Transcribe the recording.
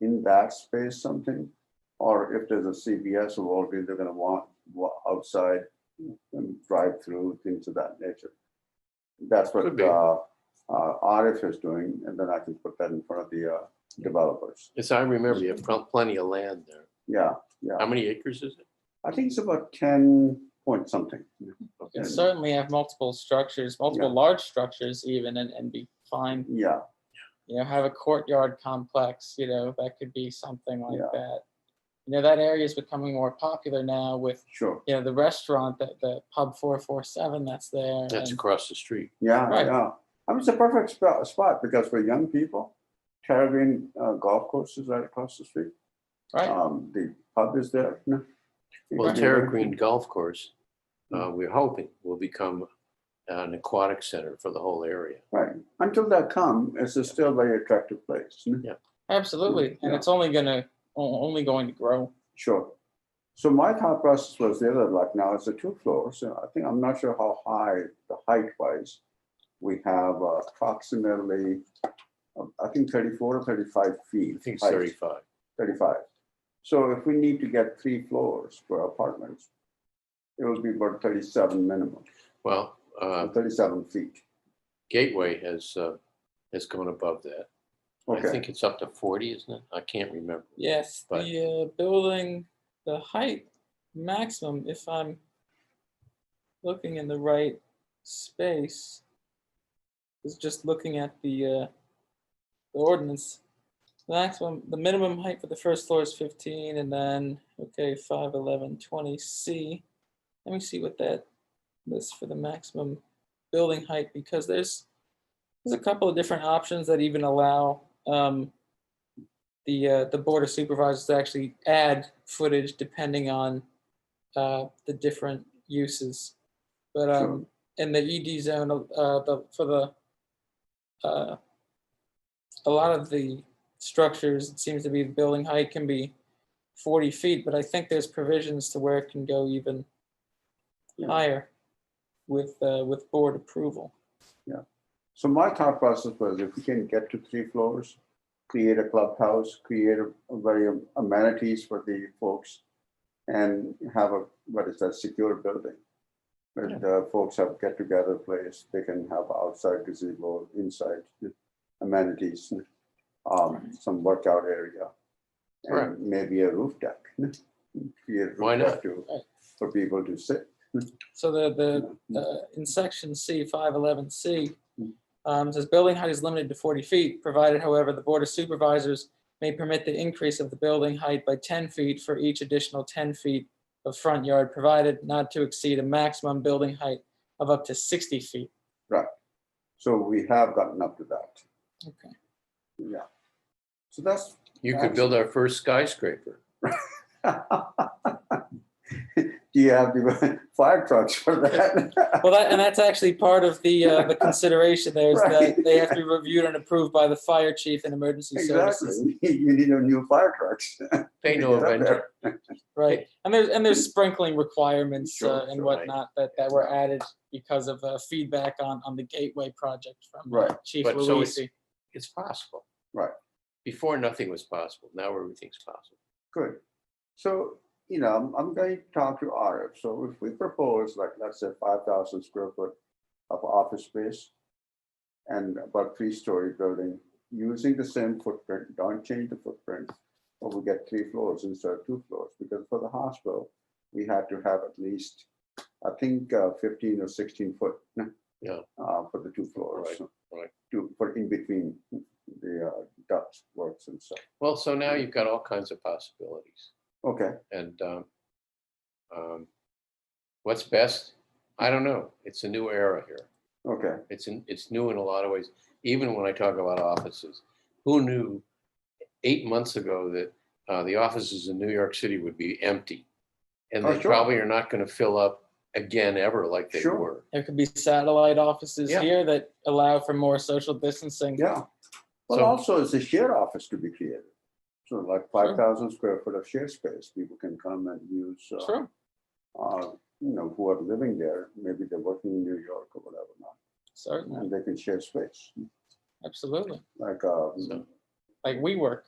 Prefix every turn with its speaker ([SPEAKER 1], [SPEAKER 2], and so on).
[SPEAKER 1] in that space something? Or if there's a CVS or Walgreens, they're gonna want wa- outside and drive through, things of that nature. That's what
[SPEAKER 2] Could be.
[SPEAKER 1] uh, uh, RF is doing, and then I can put that in front of the uh, developers.
[SPEAKER 2] Yes, I remember you have pl- plenty of land there.
[SPEAKER 1] Yeah,
[SPEAKER 2] How many acres is it?
[SPEAKER 1] I think it's about ten point something.
[SPEAKER 3] You
[SPEAKER 1] Yeah.
[SPEAKER 3] certainly have multiple structures, multiple large structures even, and, and be fine,
[SPEAKER 1] Yeah,
[SPEAKER 3] you know, have a courtyard complex, you know, that could be something like
[SPEAKER 1] Yeah.
[SPEAKER 3] that. You know, that area is becoming more popular now with,
[SPEAKER 1] sure.
[SPEAKER 3] you know, the restaurant, that, the pub four four seven that's there.
[SPEAKER 2] That's
[SPEAKER 3] and-
[SPEAKER 2] across the street.
[SPEAKER 1] Yeah,
[SPEAKER 3] Right.
[SPEAKER 1] yeah. I mean, it's a perfect spot, spot because for young people, Caribbean uh, Golf Course is right across the street.
[SPEAKER 3] Right,
[SPEAKER 1] Um, the pub is there. no?
[SPEAKER 2] Well,
[SPEAKER 1] Yeah.
[SPEAKER 2] Terra Green Golf Course, uh, we're hoping will become uh, an aquatic center for the whole area.
[SPEAKER 1] Right. Until that come, it's a still very attractive place. no?
[SPEAKER 3] absolutely, and
[SPEAKER 1] Yeah.
[SPEAKER 3] it's only gonna, o- only going to grow.
[SPEAKER 1] Sure. So my thought process was the other, like now it's a two floors. So I think, I'm not sure how high the height wise. We have uh, approximately, uh, I think thirty-four or thirty-five feet.
[SPEAKER 2] I think it's
[SPEAKER 1] height.
[SPEAKER 2] 35.
[SPEAKER 1] 35. So if we need to get three floors for apartments, it will be about 37 minimum,
[SPEAKER 2] Well, uh,
[SPEAKER 1] uh, 37 feet.
[SPEAKER 2] Gateway has, uh, has gone above that. I
[SPEAKER 1] Okay,
[SPEAKER 2] think it's up to 40, isn't it? I can't remember.
[SPEAKER 3] Yes,
[SPEAKER 2] But-
[SPEAKER 3] the uh, building, the height maximum, if I'm looking in the right space, is just looking at the, uh, the ordinance. The maximum, the minimum height for the first floor is fifteen and then, okay, five, eleven, twenty C. Let me see what that lists for the maximum building height because there's, there's a couple of different options that even allow, um, the, uh, the board of supervisors to actually add footage depending on, uh, the different uses. But, um, in the ED zone, uh, the, for the, uh, a lot of the structures, it seems to be the building height can be forty feet, but I think there's provisions to where it can go even
[SPEAKER 1] Yeah.
[SPEAKER 3] higher with, uh, with board approval.
[SPEAKER 1] so my thought process was if we can get to three floors, create a clubhouse, create a a very amenities for the folks and have a, what is that, secure building. where the folks have get together place, they can have outside gazebo, inside amenities, um, some workout area.
[SPEAKER 2] Right.
[SPEAKER 1] And maybe a roof deck. Create a roof
[SPEAKER 2] Why
[SPEAKER 1] deck
[SPEAKER 2] not?
[SPEAKER 1] to-
[SPEAKER 3] Right.
[SPEAKER 1] For people to sit.
[SPEAKER 3] So the, the,
[SPEAKER 1] Yeah.
[SPEAKER 3] uh, in section C, five eleven C,
[SPEAKER 1] Hmm.
[SPEAKER 3] um, says building height is limited to forty feet, provided however, the board of supervisors may permit the increase of the building height by ten feet for each additional ten feet of front yard, provided not to exceed a maximum building height of up to sixty feet.
[SPEAKER 1] So we have gotten up to that.
[SPEAKER 3] Okay.
[SPEAKER 1] Yeah. So that's,
[SPEAKER 2] You could build our first skyscraper.
[SPEAKER 1] do you have the fire trucks for that?
[SPEAKER 3] Well, that, and that's actually part of the, uh, the consideration there is that
[SPEAKER 1] Right.
[SPEAKER 3] they have to be reviewed and approved by the fire chief and emergency services.
[SPEAKER 1] Exactly. You need a new fire trucks.
[SPEAKER 2] They know of
[SPEAKER 1] Yeah.
[SPEAKER 2] engineering.
[SPEAKER 3] Right, and there's, and there's sprinkling requirements
[SPEAKER 2] Sure,
[SPEAKER 3] uh, and
[SPEAKER 2] sure, right.
[SPEAKER 3] whatnot that, that were added because of uh, feedback on, on the gateway project from uh,
[SPEAKER 1] Right.
[SPEAKER 3] Chief
[SPEAKER 2] But so it's-
[SPEAKER 3] Luisi.
[SPEAKER 2] It's possible.
[SPEAKER 1] Right.
[SPEAKER 2] Before, nothing was possible. Now everything's possible.
[SPEAKER 1] Good. So, you know, I'm, I'm going to talk to Arif. So if we propose like, let's say five thousand square foot of office space and about three-story building, using the same footprint, don't change the footprint, but we get three floors instead of two floors, because for the hospital, we had to have at least, I think, uh, fifteen or sixteen foot.
[SPEAKER 2] Yeah.
[SPEAKER 1] Uh, for the two floors.
[SPEAKER 2] right.
[SPEAKER 1] To, for in between the uh, duct works and stuff.
[SPEAKER 2] Well, so now
[SPEAKER 1] Mm.
[SPEAKER 2] you've got all kinds of possibilities.
[SPEAKER 1] Okay,
[SPEAKER 2] And um, um, what's best? I don't know. It's a new era here.
[SPEAKER 1] okay.
[SPEAKER 2] It's, in- it's new in a lot of ways, even when I talk about offices. Who knew eight months ago that uh, the offices in New York City would be empty? And
[SPEAKER 1] Oh,
[SPEAKER 2] they
[SPEAKER 1] sure.
[SPEAKER 2] probably are not going to fill up again ever like they
[SPEAKER 1] Sure.
[SPEAKER 2] were.
[SPEAKER 3] There could be satellite offices
[SPEAKER 2] Yeah.
[SPEAKER 3] here that allow for more social distancing.
[SPEAKER 1] Yeah, but
[SPEAKER 2] So-
[SPEAKER 1] also it's a shared office to be created. So like five thousand square foot of shared space, people can come and use, uh,
[SPEAKER 3] True,
[SPEAKER 1] uh, you know, who are living there, maybe they're working in New York or whatever not,
[SPEAKER 3] certainly,
[SPEAKER 1] and they can share space,
[SPEAKER 3] absolutely,
[SPEAKER 1] like, uh,
[SPEAKER 2] So-
[SPEAKER 3] like we work.